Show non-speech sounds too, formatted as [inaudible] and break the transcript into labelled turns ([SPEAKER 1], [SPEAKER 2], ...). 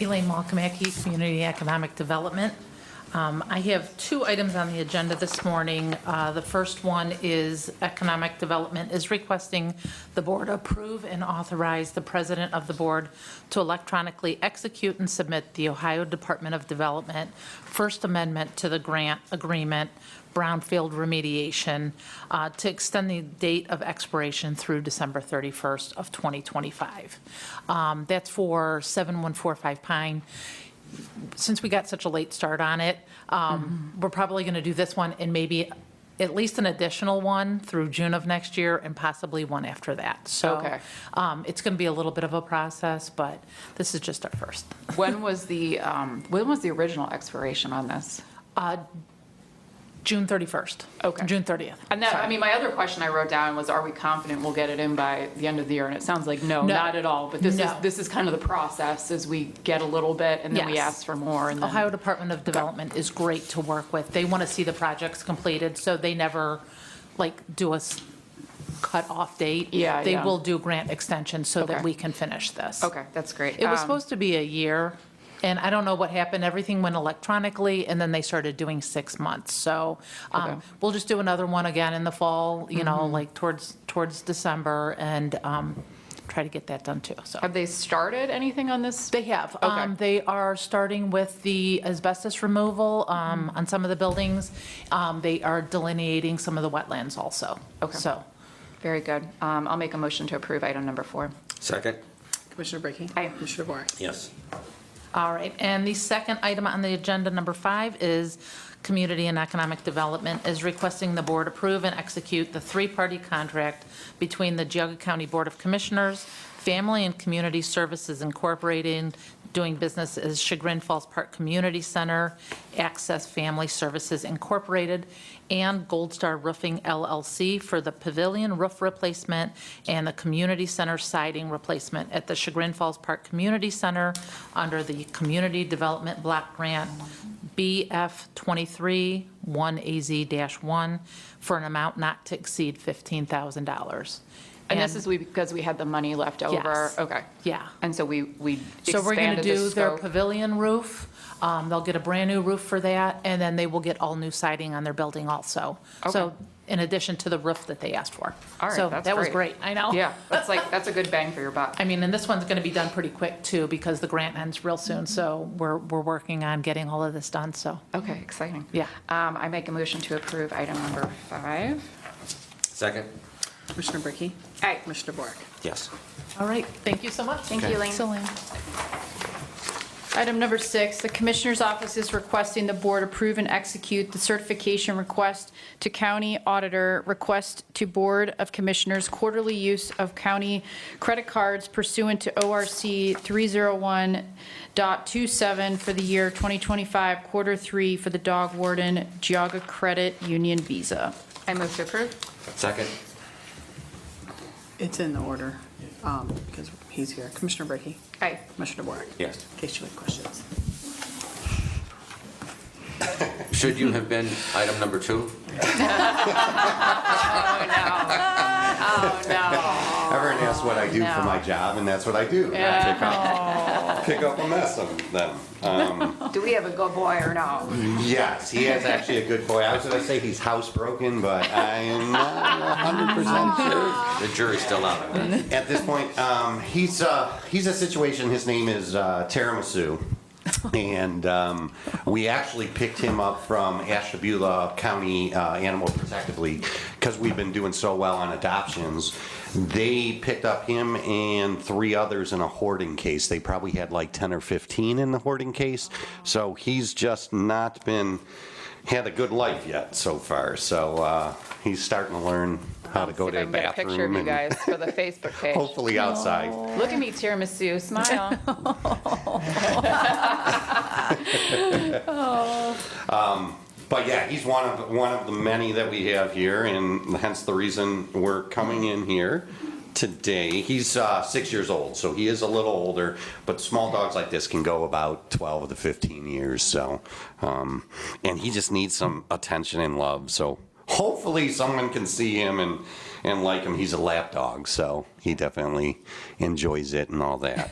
[SPEAKER 1] Elaine Malkamaki, Community Economic Development. Um, I have two items on the agenda this morning. Uh, The first one is Economic Development is requesting the board approve and authorize the president of the board to electronically execute and submit the Ohio Department of Development First Amendment to the grant agreement brownfield remediation uh, to extend the date of expiration through December 31st of 2025. Um, That's for 7145 Pine since we got such a late start on it, um, we're probably going to do this one and maybe at least an additional one through June of next year and possibly one after that. So
[SPEAKER 2] Okay.
[SPEAKER 1] um, it's going to be a little bit of a process, but this is just our first.
[SPEAKER 2] When was the, um, when was the original expiration on this?
[SPEAKER 1] Uh, June 31st.
[SPEAKER 2] Okay.
[SPEAKER 1] June 30th.
[SPEAKER 2] And that, I mean, my other question I wrote down was, are we confident we'll get it in by the end of the year? And it sounds like, no,
[SPEAKER 1] No.
[SPEAKER 2] not at all. But this is,
[SPEAKER 1] No.
[SPEAKER 2] this is kind of the process, is we get a little bit, and then we
[SPEAKER 1] Yes.
[SPEAKER 2] ask for more, and
[SPEAKER 1] Ohio
[SPEAKER 2] then,
[SPEAKER 1] Department of Development is great to work with. They want to see the projects completed, so they never, like, do a s- cut-off date.
[SPEAKER 2] Yeah,
[SPEAKER 1] They
[SPEAKER 2] yeah.
[SPEAKER 1] will do grant extensions so that
[SPEAKER 2] Okay.
[SPEAKER 1] we can finish this.
[SPEAKER 2] okay, that's great.
[SPEAKER 1] It was
[SPEAKER 2] Um,
[SPEAKER 1] supposed to be a year, and I don't know what happened. Everything went electronically, and then they started doing six months. So um,
[SPEAKER 2] Okay. Mm-hmm.
[SPEAKER 1] we'll just do another one again in the fall, you know, like towards, towards December, and um, try to get that done too, so.
[SPEAKER 2] Have they started anything on this?
[SPEAKER 1] They have.
[SPEAKER 2] Okay.
[SPEAKER 1] Um, They are starting with the asbestos removal um, on some of the buildings. Um, They are delineating some of the wetlands also.
[SPEAKER 2] Okay.
[SPEAKER 1] So,
[SPEAKER 2] Very good. Um, I'll make a motion to approve item number four.
[SPEAKER 3] Second?
[SPEAKER 4] Commissioner Brackey.
[SPEAKER 2] Aye.
[SPEAKER 4] Commissioner DeVore.
[SPEAKER 3] Yes.
[SPEAKER 1] all right. And the second item on the agenda, number five, is Community and Economic Development is requesting the board approve and execute the three-party contract between the Geogu County Board of Commissioners, Family and Community Services Incorporated, doing business as Chagrin Falls Park Community Center, Access Family Services Incorporated, and Gold Star Roofing LLC for the pavilion roof replacement and the community center siding replacement at the Chagrin Falls Park Community Center under the Community Development Block Grant BF 23-1AZ-1 for an amount not to exceed $15,000.
[SPEAKER 2] And this is we- because we had the money left over?
[SPEAKER 1] Yes.
[SPEAKER 2] Okay.
[SPEAKER 1] Yeah.
[SPEAKER 2] And so we, we
[SPEAKER 1] So we're going to
[SPEAKER 2] expanded the
[SPEAKER 1] do their
[SPEAKER 2] scope.
[SPEAKER 1] pavilion roof. Um, They'll get a brand-new roof for that, and then they will get all new siding on their building also. So
[SPEAKER 2] Okay.
[SPEAKER 1] in addition to the roof that they asked for.
[SPEAKER 2] All right,
[SPEAKER 1] So
[SPEAKER 2] that's
[SPEAKER 1] that was great, I know.
[SPEAKER 2] Yeah, that's like, that's a good bang for your buck.
[SPEAKER 1] I mean, and this one's going to be done pretty quick, too, because the grant ends real
[SPEAKER 2] Mm-hmm.
[SPEAKER 1] soon, so we're, we're working on getting all of this done, so,
[SPEAKER 2] Okay, exciting.
[SPEAKER 1] Yeah.
[SPEAKER 2] Um, I make a motion to approve item number five.
[SPEAKER 3] Second?
[SPEAKER 4] Commissioner Brackey.
[SPEAKER 2] Aye.
[SPEAKER 4] Commissioner DeVore.
[SPEAKER 3] Yes.
[SPEAKER 1] all right, thank you so much.
[SPEAKER 2] Thank you, Elaine.
[SPEAKER 1] Thanks, Elaine.
[SPEAKER 5] Item number six, the Commissioner's Office is requesting the Board approve and execute the certification request to County Auditor, request to Board of Commissioners quarterly use of county credit cards pursuant to ORC 301.27 for the year 2025, quarter three for the Dog Warden Geauga Credit Union Visa.
[SPEAKER 2] I move to approve.
[SPEAKER 3] Second?
[SPEAKER 4] It's in the order, um, because he's here. Commissioner Brackey.
[SPEAKER 2] Aye.
[SPEAKER 4] Commissioner DeVore.
[SPEAKER 3] Yes.
[SPEAKER 4] In case you had questions.
[SPEAKER 3] Should you have been item number two?
[SPEAKER 2] Oh, no. Oh, no.
[SPEAKER 6] Everyone asks what I do for my job, and that's what I do. I Pick up, pick up a mess of them.
[SPEAKER 2] Do we have a good boy or no?
[SPEAKER 6] Yes, he is actually a good boy. I was gonna say he's housebroken, but I am not hundred percent
[SPEAKER 3] The jury's still out on that.
[SPEAKER 6] sure. At this point, um, he's, uh, he's a situation, his name is, uh, Tiramisu. And, um, we actually picked him up from Ashtabula County, uh, Animal Protective League, because we've been doing so well on adoptions. They picked up him and three others in a hoarding case. They probably had like ten or fifteen in the hoarding case. So he's just not been, had a good life yet so far, so uh, he's starting to learn how to go to the
[SPEAKER 2] See if I can get a picture of
[SPEAKER 6] bathroom
[SPEAKER 2] you guys
[SPEAKER 6] and
[SPEAKER 2] for the Facebook page.
[SPEAKER 6] [laughs] hopefully outside.
[SPEAKER 2] Look at me, tiramisu, smile.
[SPEAKER 6] But yeah, he's one of, one of the many that we have here, and hence the reason we're coming in here today. He's uh, six years old, so he is a little older, but small dogs like this can go about 12 to 15 years, so. um, And he just needs some attention and love, so hopefully someone can see him and, and like him. He's a lap dog, so he definitely enjoys it and all that.